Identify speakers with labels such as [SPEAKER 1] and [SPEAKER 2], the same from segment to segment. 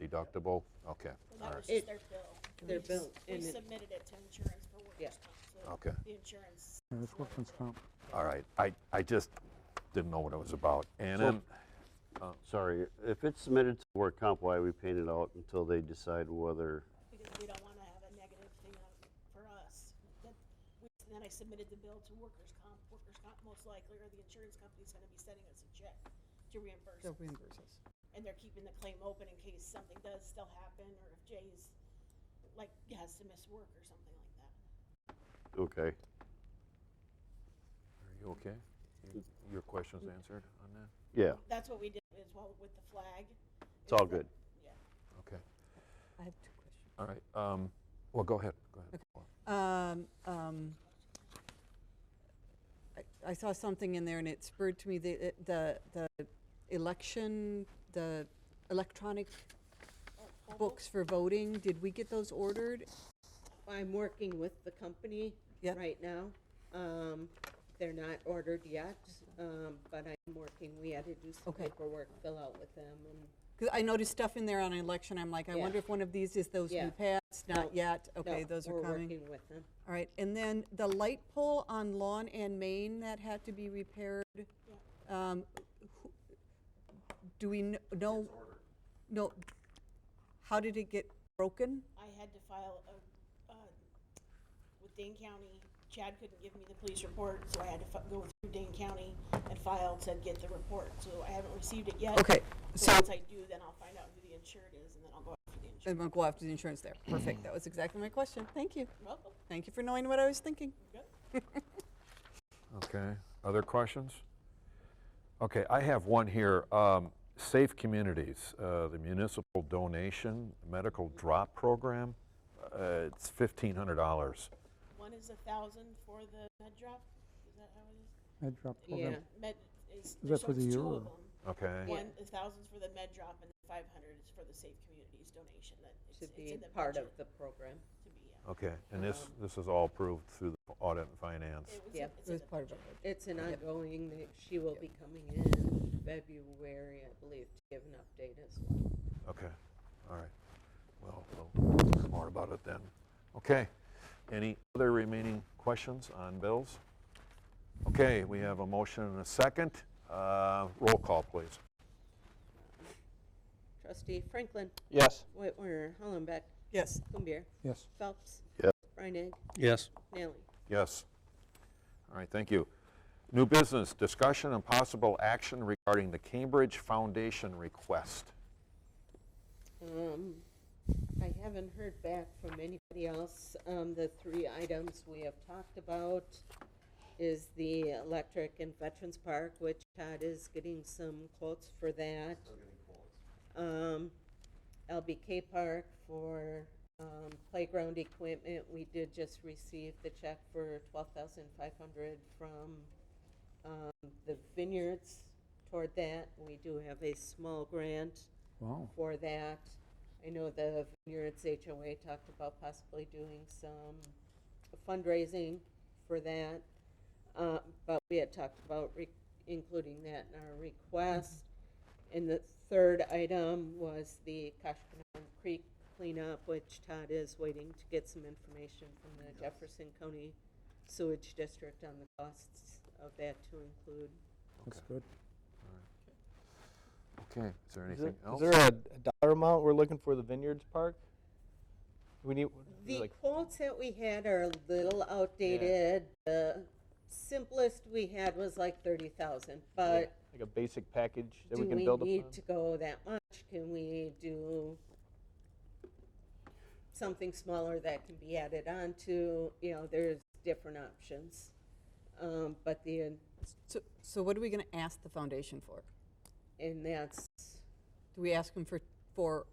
[SPEAKER 1] deductible? Okay,
[SPEAKER 2] Well,
[SPEAKER 1] all
[SPEAKER 2] that was
[SPEAKER 1] right,
[SPEAKER 2] just their bill.
[SPEAKER 3] Their
[SPEAKER 2] We-
[SPEAKER 3] bill,
[SPEAKER 2] We
[SPEAKER 3] and it-
[SPEAKER 2] submitted it to insurance for
[SPEAKER 3] Yeah.
[SPEAKER 2] workers' comp, so
[SPEAKER 1] okay,
[SPEAKER 2] the insurance.
[SPEAKER 4] Yeah, it's workman's comp.
[SPEAKER 1] all right. I, I just didn't know what it was about. And
[SPEAKER 5] So-
[SPEAKER 1] then,
[SPEAKER 5] oh, Sorry, if it's submitted to work comp, why we paint it out until they decide whether,
[SPEAKER 2] Because we don't want to have a negative thing on, for us. That- we- and Then I submitted the bill to workers' comp, workers' comp most likely, or the insurance company's going to be sending us a check to reimburse.
[SPEAKER 3] They'll
[SPEAKER 2] us.
[SPEAKER 3] reimburse us.
[SPEAKER 2] And they're keeping the claim open in case something does still happen, or if Jay's, like, has to miss work or something like that.
[SPEAKER 5] okay.
[SPEAKER 1] are you okay? You- Your question's answered on that?
[SPEAKER 5] Yeah,
[SPEAKER 2] That's what we did as well with the flag.
[SPEAKER 5] it's all good.
[SPEAKER 1] Okay,
[SPEAKER 3] I have two questions.
[SPEAKER 1] all right. Um, Well, go ahead, go ahead. Paula.
[SPEAKER 3] Um, um, I, I saw something in there and it spurred to me the, it- the, the election, the electronic
[SPEAKER 2] Oh,
[SPEAKER 3] books for voting. Did we get those ordered?
[SPEAKER 6] I'm working with the company
[SPEAKER 3] Yep.
[SPEAKER 6] right now. Um, they're not ordered yet, um, but I'm working, we had to do some
[SPEAKER 3] Okay.
[SPEAKER 6] paperwork, fill out with them and.
[SPEAKER 3] Because I noticed stuff in there on election. I'm like, I
[SPEAKER 6] Yeah.
[SPEAKER 3] wonder if one of these is those
[SPEAKER 6] Yeah.
[SPEAKER 3] new pads? Not
[SPEAKER 6] No,
[SPEAKER 3] yet. Okay,
[SPEAKER 6] no,
[SPEAKER 3] those are
[SPEAKER 6] We're
[SPEAKER 3] coming.
[SPEAKER 6] working with them.
[SPEAKER 3] All right, and then the light pole on Lawn and Main that had to be repaired. um, who- Do we kn- know? No, how did it get broken?
[SPEAKER 2] I had to file a, uh, with Dane County, Chad couldn't give me the police report, so I had to fi- go through Dane County and file to get the report, so I haven't received it yet.
[SPEAKER 3] Okay, so-
[SPEAKER 2] Once I do, then I'll find out who the insured is, and then I'll go after the insured.
[SPEAKER 3] I'm gonna go after the insurance there. Perfect, that was exactly my question. Thank you.
[SPEAKER 2] Welcome,
[SPEAKER 3] Thank you for knowing what I was thinking.
[SPEAKER 2] good.
[SPEAKER 1] Okay, other questions? Okay, I have one here. Um, Safe Communities, uh, the municipal donation medical drop program, uh, it's $1,500.
[SPEAKER 2] One is a thousand for the med drop, is that how it is?
[SPEAKER 4] Med drop
[SPEAKER 6] Yeah,
[SPEAKER 4] program.
[SPEAKER 2] Med, is,
[SPEAKER 4] that for
[SPEAKER 2] so it's
[SPEAKER 4] the
[SPEAKER 2] two
[SPEAKER 4] year
[SPEAKER 2] of
[SPEAKER 4] or-
[SPEAKER 2] them.
[SPEAKER 1] Okay.
[SPEAKER 2] One, a thousand's for the med drop, and five hundred is for the Safe Communities donation, that it's,
[SPEAKER 6] to
[SPEAKER 2] it's
[SPEAKER 6] be
[SPEAKER 2] in the budget.
[SPEAKER 6] part of the program.
[SPEAKER 2] To be, yeah.
[SPEAKER 1] Okay, and this, this is all approved through the audit and finance.
[SPEAKER 2] It was, in-
[SPEAKER 6] Yeah.
[SPEAKER 2] it's
[SPEAKER 3] It
[SPEAKER 2] in
[SPEAKER 3] was
[SPEAKER 2] the
[SPEAKER 3] part of
[SPEAKER 2] budget.
[SPEAKER 3] it.
[SPEAKER 6] It's an ongoing, that she will be coming in February, I believe, to give an update as well.
[SPEAKER 1] Okay, all right. Well, we'll learn more about it then. Okay, any other remaining questions on bills? Okay, we have a motion and a second. Uh, Roll call, please.
[SPEAKER 6] Trustee Franklin,
[SPEAKER 5] Yes.
[SPEAKER 6] White Warner, Hollenbeck,
[SPEAKER 3] Yes,
[SPEAKER 6] Kumbir,
[SPEAKER 4] Yes.
[SPEAKER 6] Phelps.
[SPEAKER 5] Yes.
[SPEAKER 6] Reinig,
[SPEAKER 5] Yes.
[SPEAKER 6] Nally.
[SPEAKER 1] Yes. All right, thank you. New business, discussion and possible action regarding the Cambridge Foundation request.
[SPEAKER 6] Um, I haven't heard back from anybody else. Um, the three items we have talked about is the electric in Veterans Park, which Todd is getting some quotes for that. Um, LBK Park for, um, playground equipment. We did just receive the check for twelve thousand five hundred from, um, the vineyards toward that. We do have a small grant
[SPEAKER 4] Wow.
[SPEAKER 6] for that. I know the Vineyards HOA talked about possibly doing some fundraising for that. Uh, but we had talked about re- including that in our request. And the third item was the Koshkonong Creek cleanup, which Todd is waiting to get some information from the Jefferson County Sewage District on the costs of that to include.
[SPEAKER 4] That's good.
[SPEAKER 1] Okay, is there
[SPEAKER 7] Is there-
[SPEAKER 1] anything else?
[SPEAKER 7] Is there a, a dollar amount we're looking for the Vineyards Park? We need
[SPEAKER 6] The
[SPEAKER 7] like
[SPEAKER 6] quotes that we had are a little outdated. The simplest we had was like thirty thousand, but
[SPEAKER 7] like a basic package that
[SPEAKER 6] do
[SPEAKER 7] we can
[SPEAKER 6] we
[SPEAKER 7] build
[SPEAKER 6] need
[SPEAKER 7] upon.
[SPEAKER 6] to go that much? Can we do something smaller that can be added on to? You know, there's different options. Um, but the,
[SPEAKER 3] so, so what are we gonna ask the foundation for?
[SPEAKER 6] and that's,
[SPEAKER 3] Do we ask them for, for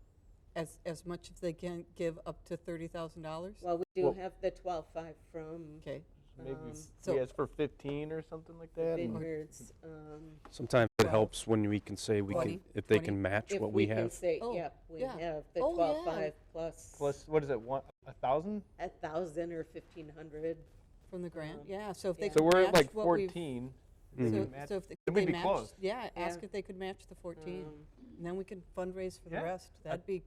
[SPEAKER 3] as, as much as they can give up to thirty thousand dollars?
[SPEAKER 6] well, we do
[SPEAKER 7] Well-
[SPEAKER 6] have the twelve-five from
[SPEAKER 3] Okay,
[SPEAKER 7] Maybe
[SPEAKER 6] um,
[SPEAKER 3] so-
[SPEAKER 7] we ask for fifteen or something like that. and-
[SPEAKER 6] Vineyards. um,
[SPEAKER 8] Sometimes it
[SPEAKER 3] Twelve.
[SPEAKER 8] helps when we can say we
[SPEAKER 3] Twenty.
[SPEAKER 8] can, if they
[SPEAKER 3] Twenty.
[SPEAKER 8] can match
[SPEAKER 6] If
[SPEAKER 8] what we
[SPEAKER 6] can
[SPEAKER 8] have.
[SPEAKER 6] say,
[SPEAKER 3] Oh,
[SPEAKER 6] yep, we
[SPEAKER 3] yeah.
[SPEAKER 6] have the
[SPEAKER 3] Oh, yeah.
[SPEAKER 6] twelve-five plus.
[SPEAKER 7] Plus, what is it? One a thousand?
[SPEAKER 6] a thousand or fifteen hundred.
[SPEAKER 3] from the grant,
[SPEAKER 6] Um,
[SPEAKER 3] yeah, so if they
[SPEAKER 6] yeah.
[SPEAKER 7] So
[SPEAKER 3] could
[SPEAKER 7] we're at
[SPEAKER 3] match
[SPEAKER 7] like
[SPEAKER 3] what we've.
[SPEAKER 7] fourteen.
[SPEAKER 3] So,
[SPEAKER 7] They can match-
[SPEAKER 3] so if they,
[SPEAKER 7] Then
[SPEAKER 3] could they
[SPEAKER 7] we'd Mm-hmm. be
[SPEAKER 3] match,
[SPEAKER 7] close.
[SPEAKER 3] yeah, ask
[SPEAKER 6] Yeah.
[SPEAKER 3] if they could match the 14,
[SPEAKER 6] Um,
[SPEAKER 3] and then we can fundraise for the
[SPEAKER 7] Yeah.
[SPEAKER 3] rest. That'd be